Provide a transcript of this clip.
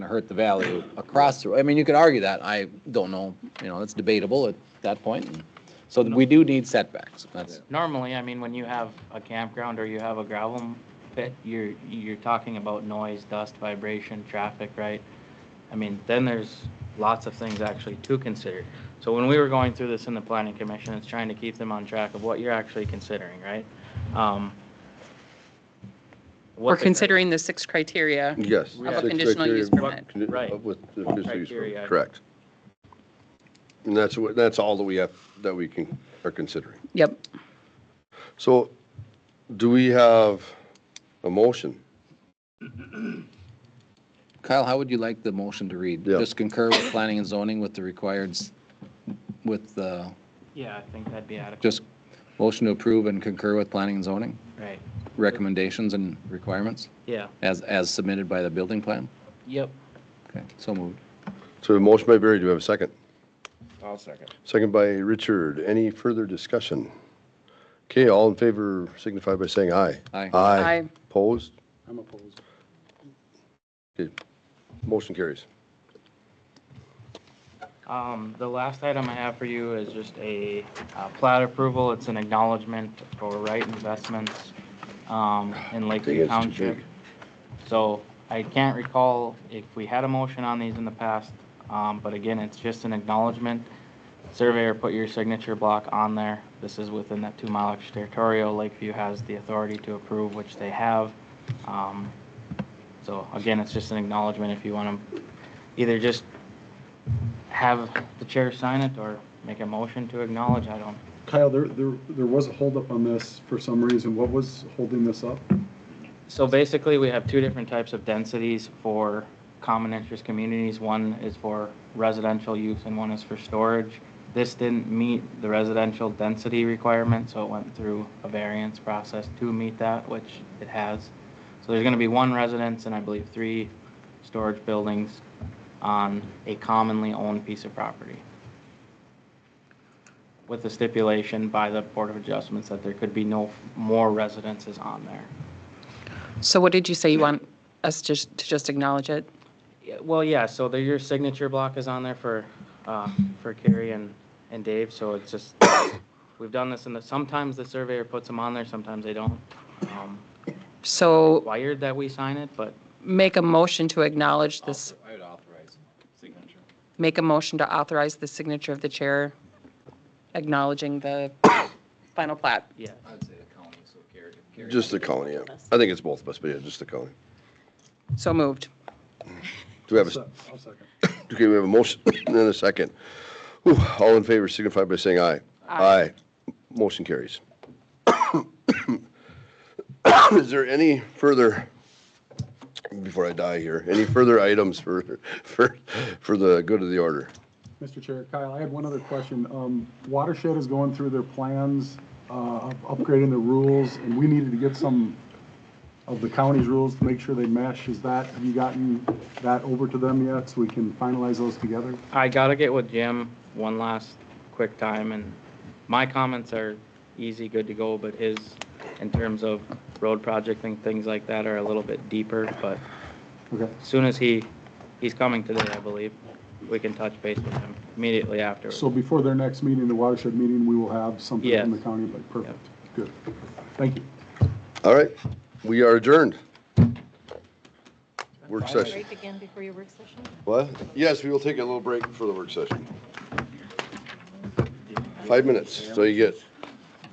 hurt the value across the, I mean, you could argue that. I don't know, you know, it's debatable at that point. So we do need setbacks. That's, Normally, I mean, when you have a campground or you have a gravel pit, you're, you're talking about noise, dust, vibration, traffic, right? I mean, then there's lots of things actually to consider. So when we were going through this in the planning commission, it's trying to keep them on track of what you're actually considering, right? Um, what We're the- considering the six criteria. Yes. Of a six conditional use criteria, permit. condi- Right. of With the What conditional use criteria? permit, correct. And that's what, that's all that we have, that we can, are considering. Yep. So do we have a motion? Kyle, how would you like the motion to read? Yeah. Just concur with planning and zoning with the required, s- with the, Yeah, I think that'd be adequate, just motion to approve and concur with planning and zoning right, recommendations and requirements yeah, as, as submitted by the building plan? yep. Okay, so moved. So a motion by Barry, do we have a second? I'll second. Second by Richard. Any further discussion? Okay, all in favor signify by saying aye. Aye. Aye. Aye. Opposed? I'm opposed. Okay. Motion carries. Um, the last item I have for you is just a uh, plat approval. It's an acknowledgement for right investments um, in Lakeview it's too Township. big. So I can't recall if we had a motion on these in the past, um, but again, it's just an acknowledgement. Surveyor, put your signature block on there. This is within that two-mile extraterritorial. Lakeview has the authority to approve, which they have. Um, So again, it's just an acknowledgement if you want to either just have the chair sign it or make a motion to acknowledge, I don't. Kyle, there, there, there was a holdup on this for some reason. What was holding this up? So basically, we have two different types of densities for common interest communities. One is for residential use and one is for storage. This didn't meet the residential density requirement, so it went through a variance process to meet that, which it has. So there's gonna be one residence and I believe three storage buildings on a commonly owned piece of property. With the stipulation by the Board of Adjustments that there could be no more residences on there. So what did you say you want us to, to just acknowledge it? Yeah, Well, yeah, so there, your signature block is on there for, uh, for Carrie and, and Dave, so it's just, we've done this in the, sometimes the surveyor puts them on there, sometimes they don't. Um, So Wired that we sign it, but make a motion to acknowledge this, I would authorize signature. make a motion to authorize the signature of the chair acknowledging the final plat. yeah, I'd say the county, so carried. Just the county, yeah. I think it's both of us, but yeah, just the county. So moved. Do we have a? Se- I'll second. Okay, we have a motion and a second. Whew, All in favor signify by saying aye. Aye. Motion carries. Is there any further, before I die here, any further items for, for, for the good of the order? Mr. Chair, Kyle, I had one other question. Um, Watershed is going through their plans, uh, of upgrading the rules, and we needed to get some of the county's rules to make sure they mesh. Is that, have you gotten that over to them yet, so we can finalize those together? I gotta get with Jim one last quick time, and my comments are easy, good to go, but his, in terms of road project and things like that are a little bit deeper, but Okay, as soon as he, he's coming today, I believe, we can touch base with him immediately afterwards. so before their next meeting, the Watershed meeting, we will have something from the Yes. county, but perfect, good. Thank you. All right, we are adjourned. Work session. break again before your work session? What? Yes, we will take a little break for the work session. Five minutes, so you get